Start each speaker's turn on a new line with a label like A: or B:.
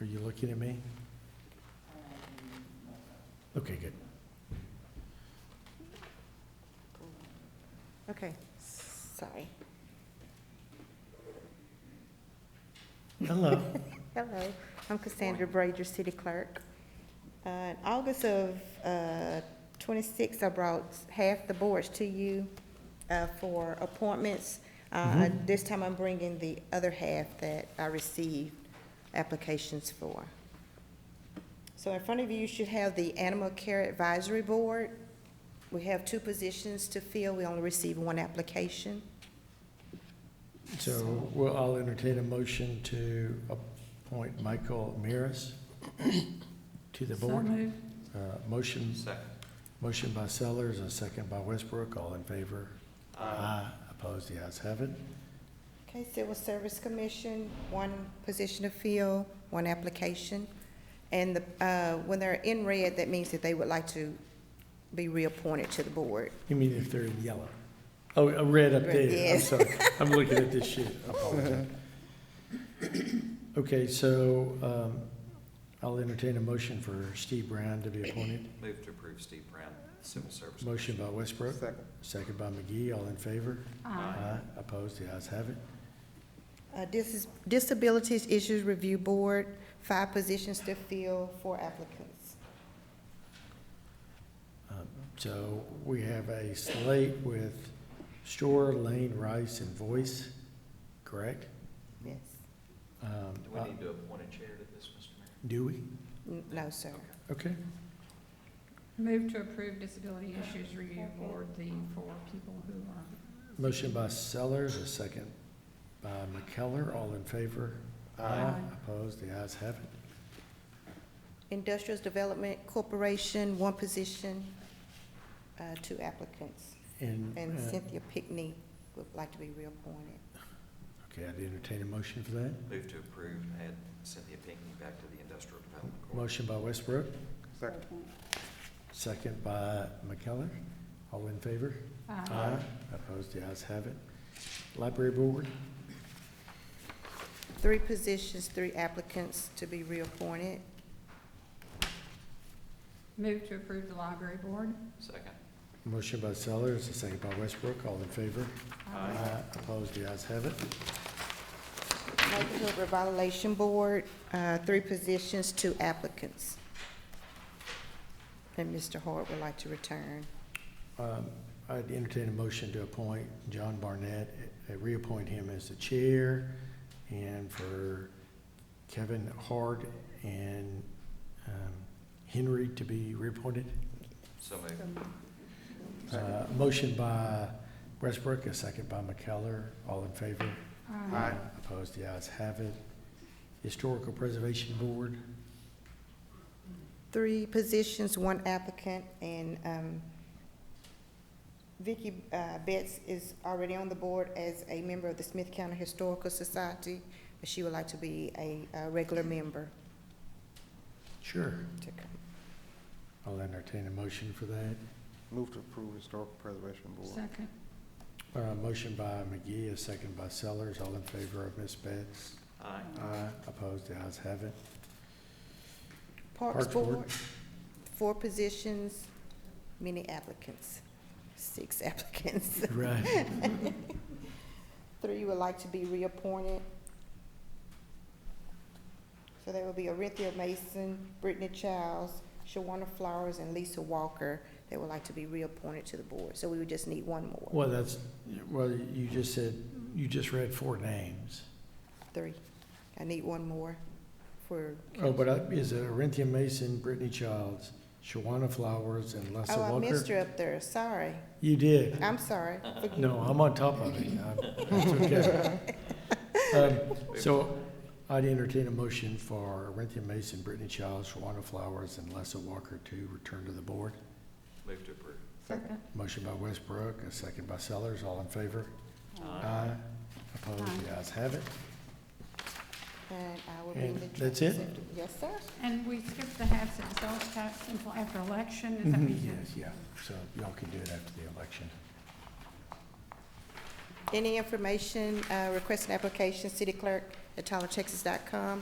A: Are you looking at me? Okay, good.
B: Okay, sorry.
A: Hello.
B: Hello, I'm Cassandra Brager, City Clerk. Uh, In August of uh, 26, I brought half the boards to you uh, for appointments. Uh,
A: Mhm.
B: This time I'm bringing the other half that I received applications for. So in front of you, you should have the Animal Care Advisory Board. We have two positions to fill, we only received one application.
A: So, well, I'll entertain a motion to appoint Michael Maris to the board. Uh, Motion,
C: Second.
A: motion by Sellers, a second by Westbrook, all in favor? Aye. Opposed, the ayes have it.
B: Okay, Civil Service Commission, one position to fill, one application. And the, uh, when they're in red, that means that they would like to be reappointed to the board.
A: You mean if they're in yellow? Oh, a red up
B: Red,
A: there, I'm
B: yes.
A: sorry, I'm looking at this sheet, I apologize. Okay, so, um, I'll entertain a motion for Steve Brown to be appointed.
C: Move to approve Steve Brown, Civil Service.
A: Motion by Westbrook,
D: Second.
A: second by McGee, all in favor?
E: uh,
C: Aye.
A: Opposed, the ayes have it.
B: Uh, This is Disabilities Issues Review Board, five positions to fill, four applicants.
A: Um, So we have a slate with Shore, Lane, Rice, and Voice, correct?
B: Yes.
A: Um,
C: Do we need to appoint a chair to this, Mr. Mayor?
A: Do we?
B: N- No, sir.
C: Okay.
A: Okay,
E: Move to approve Disability Issues Review Board, the four people who are.
A: motion by Sellers, a second by McKellar, all in favor?
E: Aye.
A: Opposed, the ayes have it.
B: Industrial Development Corporation, one position, uh, two applicants.
A: And,
B: And
A: uh,
B: Cynthia Pickney would like to be reappointed.
A: okay, I'd entertain a motion for that.
C: Move to approve, add Cynthia Pinkney back to the Industrial Development Corp.
A: Motion by Westbrook,
D: Second.
A: second by McKellar, all in favor?
E: uh,
A: Aye. Opposed, the ayes have it. Library Board,
B: Three positions, three applicants to be reappointed.
E: Move to approve the Library Board.
C: Second.
A: motion by Sellers, a second by Westbrook, all in favor? Opposed, the ayes have it.
B: Neighborhood Revitalization Board, uh, three positions, two applicants. And Mr. Hart would like to return.
A: Um, I'd entertain a motion to appoint John Barnett, uh, reappoint him as the chair, and for Kevin Hart and um, Henry to be reappointed.
C: So moved.
A: Uh, Motion by Westbrook, a second by McKellar, all in favor?
D: Aye.
A: Opposed, the ayes have it. Historical Preservation Board,
B: Three positions, one applicant, and um, Vicky uh, Betts is already on the board as a member of the Smith County Historical Society, but she would like to be a a regular member.
A: sure.
B: to come.
A: I'll entertain a motion for that.
D: Move to approve Historical Preservation Board.
E: Second.
A: Uh, motion by McGee, a second by Sellers, all in favor of Ms. Betts.
C: Aye.
A: Aye. Opposed, the ayes have it.
B: Parks
A: Parks Board.
B: Board, four positions, many applicants, six applicants.
A: Right.
B: Three would like to be reappointed. So there will be Orinthia Mason, Brittany Childs, Shawana Flowers, and Lisa Walker that would like to be reappointed to the board. So we would just need one more,
A: Well, that's, well, you just said, you just read four names.
B: three. I need one more for,
A: Oh, but I- is it Orinthia Mason, Brittany Childs, Shawana Flowers, and Lessa
B: oh,
A: Walker?
B: I missed her up there, sorry.
A: You did.
B: I'm sorry. Forgive me.
A: No, I'm on top of it. I'm- It's okay. Um, So I'd entertain a motion for Orinthia Mason, Brittany Childs, Shawana Flowers, and Lessa Walker to return to the board.
C: Move to approve.
D: Second.
A: Motion by Westbrook, a second by Sellers, all in favor? Opposed, the ayes have it.
B: And I will bring the.
A: And that's it?
B: Yes, sir.
E: And we skipped the half-cent sales tax until after election, is that what you said?
A: Mm-hmm. Yes, yeah, so y'all can do it after the election.
B: Any information, uh, request an application, city clerk at tylertexas.com.